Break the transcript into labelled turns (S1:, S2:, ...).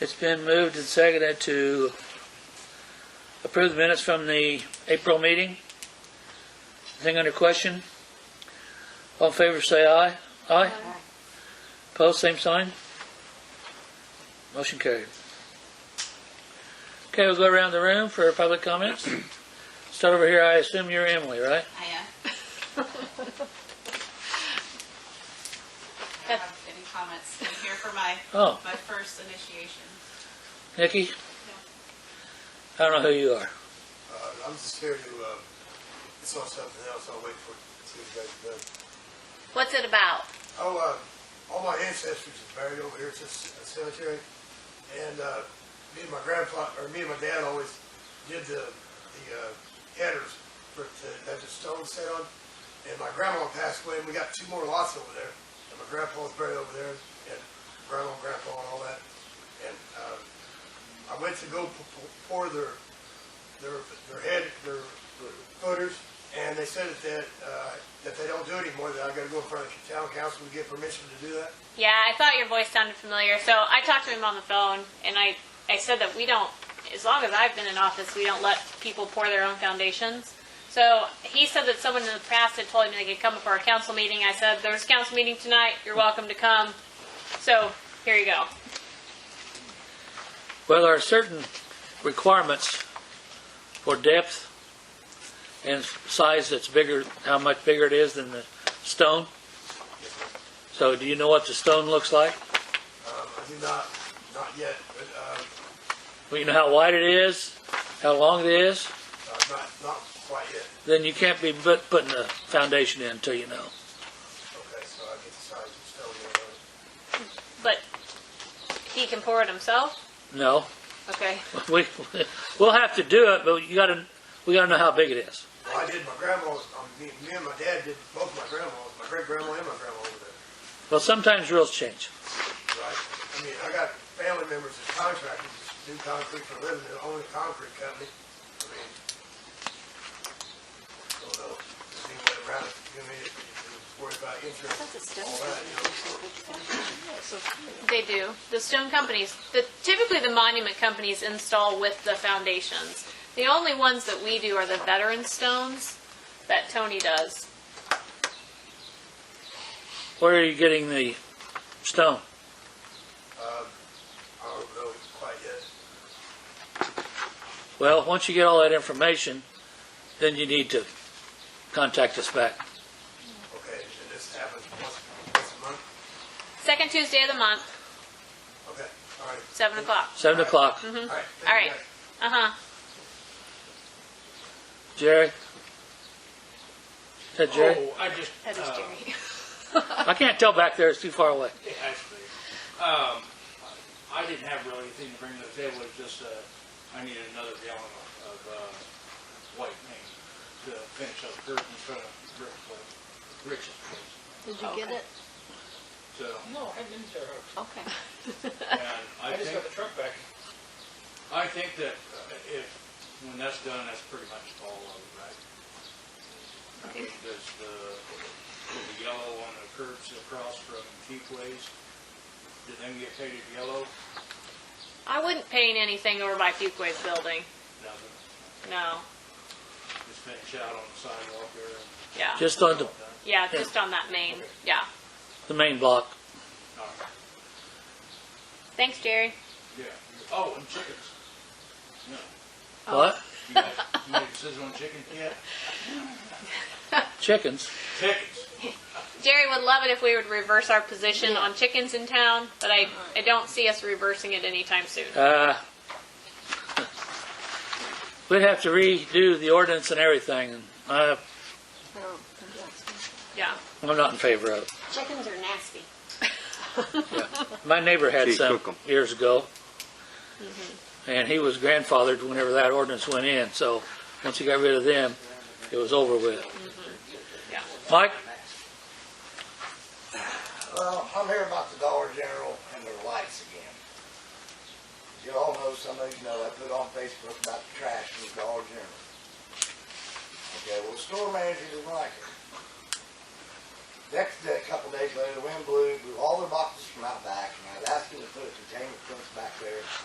S1: It's been moved and seconded to approve the minutes from the April meeting. Anything under question? All in favor, say aye. Aye? Opposed, same sign? Motion carried. Okay, we'll go around the room for public comments. Start over here, I assume you're Emily, right?
S2: I am. I don't have any comments. I'm here for my,
S1: Oh,
S2: my first initiation.
S1: Nikki? I don't know who you are.
S3: Uh, I'm just here to, uh, it's on something else, I'll wait for, see if you guys are done.
S4: What's it about?
S3: Oh, uh, all my ancestors are buried over here at this cemetery, and, uh, me and my grandfather, or me and my dad always did the, the, uh, headers for, to have the stone set on, and my grandma passed away, and we got two more lots over there, and my grandpa was buried over there, and grandma, and grandpa, and all that, and, uh, I went to go p- p- pour their, their, their head, their their footers, and they said that, uh, that they don't do it anymore, that I gotta go in front of the town council to get permission to do that.
S4: Yeah, I thought your voice sounded familiar. So I talked to him on the phone, and I, I said that we don't, as long as I've been in office, we don't let people pour their own foundations. So he said that someone in the past had told him they could come for a council meeting. I said, there's a council meeting tonight. You're welcome to come. So here you go.
S1: Well, there are certain requirements for depth and size that's bigger, how much bigger it is than the stone. So do you know what the stone looks like?
S3: Um, I do not, not yet, but, um,
S1: Well, you know how wide it is, how long it is?
S3: uh, not, not quite yet.
S1: Then you can't be put- putting the foundation in until you know.
S3: Okay, so I get the size of stone and all that.
S4: But he can pour it himself.
S1: No,
S4: Okay.
S1: we, we'll have to do it, but you gotta, we gotta know how big it is.
S3: Well, I did my grandma's, um, me, me and my dad did both my grandmas, my great grandma and my grandma over there.
S1: Well, sometimes rules change.
S3: Right. I mean, I got family members that contractors do concrete for a living, they own a concrete company. I mean, I don't know, there's any way around it, you know, you worry about insurance, all that, you know.
S4: They do. The stone companies, the, typically the monument companies install with the foundations. The only ones that we do are the veteran stones that Tony does.
S1: Where are you getting the stone?
S3: Um, I don't know quite yet.
S1: Well, once you get all that information, then you need to contact us back.
S3: Okay, and this happens once, once a month?
S4: Second Tuesday of the month,
S3: Okay, all right.
S4: seven o'clock.
S1: Seven o'clock.
S3: All right. thank you,
S4: Mm-hmm. All right.
S3: guys.
S4: Uh huh.
S1: Jerry? Is that Jerry?
S5: Oh, I just,
S4: That is
S5: uh,
S4: Jerry.
S1: I can't tell back there, it's too far away.
S5: yeah, actually, um, I didn't have really anything to bring to the table, it's just, uh, I needed another gallon of, uh, white paint to finish up dirt in front of Rick's, place- Rick's place.
S6: Did you get it?
S5: So,
S7: No, I didn't tear it up.
S6: Okay.
S5: and I
S7: I
S5: think,
S7: just got the truck back.
S5: I think that uh, if, when that's done, that's pretty much all of it, right? I mean, There's the, the yellow on the curbs across from Keithways, did them get painted yellow?
S4: I wouldn't paint anything over by Fuquay's building.
S5: Nothing.
S4: No.
S5: just finish out on the sidewalk there.
S4: Yeah.
S1: Just on the,
S4: yeah, just on that main. Yeah.
S1: the main block.
S5: All right.
S4: Thanks, Jerry.
S5: Yeah. Oh, and chickens. Yeah.
S1: What?
S5: You made, you made a decision on chickens? Yeah.
S1: Chickens.
S5: Chickens.
S4: Jerry would love it if we would reverse our position on chickens in town, but I,
S6: Uh-huh.
S4: I don't see us reversing it anytime soon.
S1: Uh, we'd have to redo the ordinance and everything. and uh, I,
S4: Yeah.
S1: I'm not in favor of it.
S6: Chickens are nasty.
S1: My neighbor had
S8: Gee,
S1: some
S8: cook 'em.
S1: years ago,
S6: Mm-hmm.
S1: and he was grandfathered whenever that ordinance went in, so once he got rid of them, it was over with.
S6: Mm-hmm.
S4: Yeah.
S1: Mike,
S3: Well, I'm here about the Dollar General and their lights again. You all know, some of you know, I put on Facebook about the trash in the Dollar General. Okay, well, store manager didn't like it.
S7: Next day, a couple days later, the wind blew, blew all their boxes from out back, and I was asking to put a containment fence back there.